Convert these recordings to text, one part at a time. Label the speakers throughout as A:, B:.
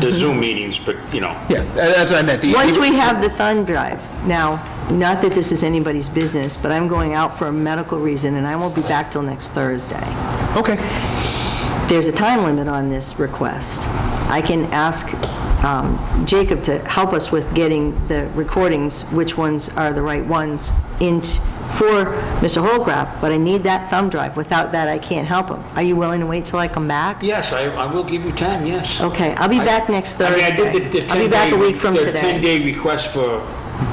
A: the Zoom meetings, but, you know,
B: Yeah, tha- that's what I meant. The-
C: Once we have the thumb drive, now, not that this is anybody's business, but I'm going out for a medical reason, and I won't be back till next Thursday.
B: Okay.
C: There's a time limit on this request. I can ask um, Jacob to help us with getting the recordings, which ones are the right ones, in, for Mr. Holcraft, but I need that thumb drive. Without that, I can't help him. Are you willing to wait till I come back?
D: Yes, I, I will give you time, yes.
C: Okay, I'll be back next
D: I mean, I
C: Thursday.
D: did the- the
C: Oh, I'll be back a
D: 10-day
C: week from
D: the
C: today.
D: 10-day request for,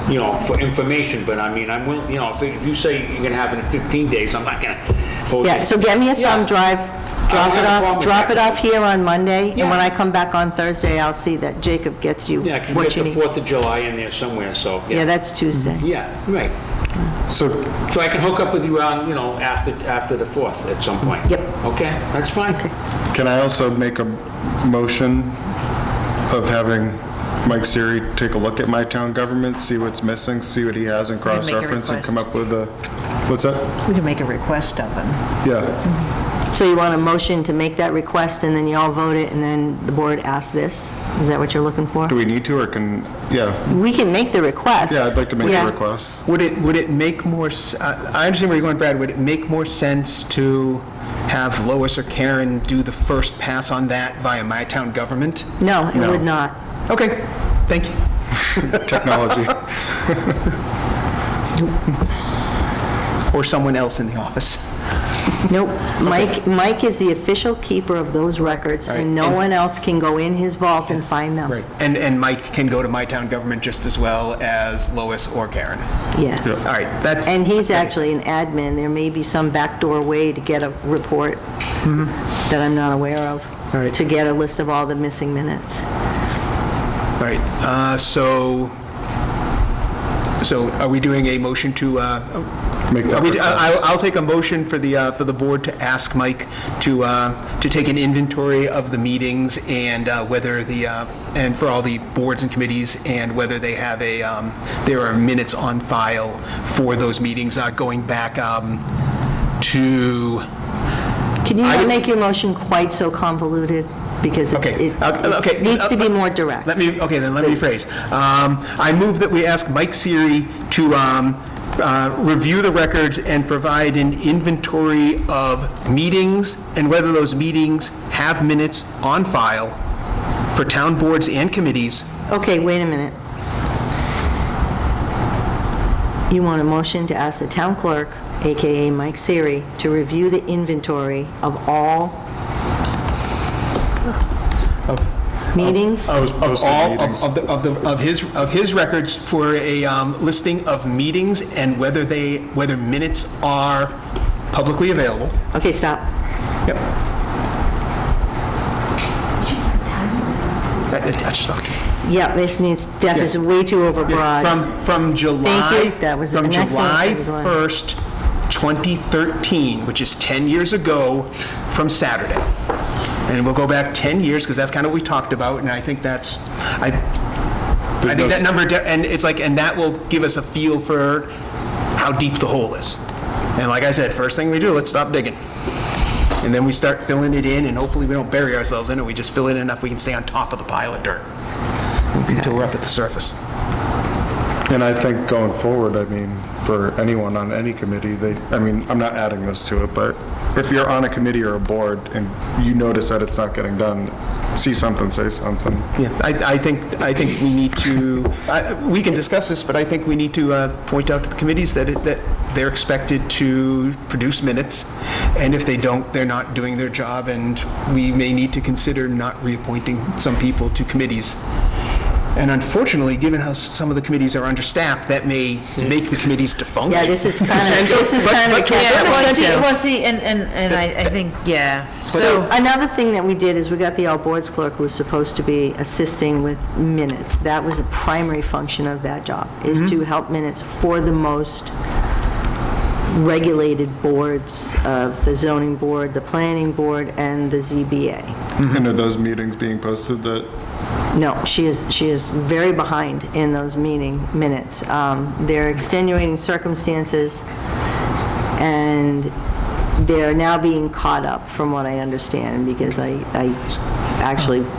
D: you know, for information, but I mean, I'm willing, you know, if- if you say you're gonna have it in 15 days, I'm not gonna hold you.
C: Yeah, so get me a
D: Yeah.
C: thumb drive,
D: I
C: drop
D: don't have a
C: it
D: problem
C: off,
D: with
C: drop
D: that.
C: it off here on Monday, and when
D: Yeah.
C: I come back on Thursday, I'll see that Jacob gets you
D: Yeah, 'cause we
C: what you
D: got the
C: need.
D: 4th of July in there somewhere, so,
C: Yeah,
D: yeah.
C: that's Tuesday.
D: Yeah, right.
B: So,
D: So I can hook up with you on, you know, after, after the 4th at some point?
C: Yep.
D: Okay, that's fine.
E: Can I also make a motion of having Mike Siri take a look at my town government, see what's missing, see what he has in
F: make a
E: cross-reference, and
F: request.
E: come up with a, what's that?
F: We can make a request of them.
E: Yeah,
D: Mm-hmm.
C: So you want a motion to make that request, and then you all vote it, and then the board asks this? Is that what you're looking for?
E: do we need to, or can, yeah,
C: We can make the request.
E: yeah, I'd like to make
C: Yeah.
E: a request.
B: would it, would it make more, s- I I understand where you're going, Brad, would it make more sense to have Lois or Karen do the first pass on that via My Town Government?
C: No, it
E: No.
C: would not.
B: Okay, thank you.
E: Technology.
B: Or someone else in the office.
C: Nope. Mike, Mike is the official keeper of those records, so
B: Right,
C: no
B: and-
C: one else can go in his vault and find them.
B: And, and Mike can go to My Town Government just as well as Lois or Karen.
C: Yes.
B: All right, that's,
C: And he's actually an admin. There may be some backdoor way to get a report that I'm not aware of,
B: All right.
C: to get a list of all the missing minutes.
B: all right, uh, so, so are we doing a motion to, uh,
E: Make
B: Are
E: that
B: we- I- I'll
E: request.
B: I'll take a motion for the, uh, for the board to ask Mike to, uh, to take an inventory of the meetings and uh, whether the, uh, and for all the boards and committees, and whether they have a, um, there are minutes on file for those meetings uh, going back um, to,
C: Can you
B: I
C: not
B: would-
C: make your motion quite so convoluted? Because it-
B: Okay,
C: it
B: uh, okay,
C: it needs to be
B: uh,
C: more direct.
B: let me, okay, then let me rephrase. Um, I move that we ask Mike Siri to um, uh, review the records and provide an inventory of meetings and whether those meetings have minutes on file for town boards and committees.
C: Okay, wait a minute. You want a motion to ask the town clerk, AKA Mike Siri, to review the inventory of all meetings?
E: I was
B: Of
E: posting
B: all,
E: meetings.
B: of- of the, of the, of his, of his records for a um, listing of meetings and whether they, whether minutes are publicly available.
C: Okay, stop.
B: Yep. I I just talked to you.
C: Yep, this needs, Def is
B: Yeah.
C: way too overbroad.
B: From, from July.
C: Thank you. That was an excellent
B: From
C: second
B: July
C: one.
B: 1st, 2013, which is 10 years ago from Saturday. And we'll go back 10 years, because that's kind of what we talked about, and I think that's, I, I
E: There's no
B: think that
E: s-
B: number, de- and it's like, and that will give us a feel for how deep the hole is. And like I said, first thing we do, let's stop digging. And then we start filling it in, and hopefully we don't bury ourselves in it, we just fill it in enough we can stay on top of the pile of dirt until we're up at the surface.
E: And I think going forward, I mean, for anyone on any committee, they, I mean, I'm not adding this to it, but if you're on a committee or a board and you notice that it's not getting done, see something, say something.
B: Yeah, I, I think, I think we need to, I- we can discuss this, but I think we need to uh, point out to the committees that, it- that they're expected to produce minutes, and if they don't, they're not doing their job, and we may need to consider not reappointing some people to committees. And unfortunately, given how some of the committees are understaffed, that may make the committees defunct.
C: Yeah, this is kind of,
B: And so-
C: this is
B: but-
C: kind of.
B: but to a certain
F: Well, see, well, see, and, and, and I, I think, yeah.
C: So another thing that we did is we got the all boards clerk who was supposed to be assisting with minutes. That was a primary function of that job, is to help minutes for the most regulated boards of the zoning board, the planning board, and the ZBA.
E: And are Mm-hmm. those meetings being posted that,
C: No, she is, she is very behind in those meeting minutes. Um, There are extenuating circumstances, and they're now being caught up, from what I understand, because I, I actually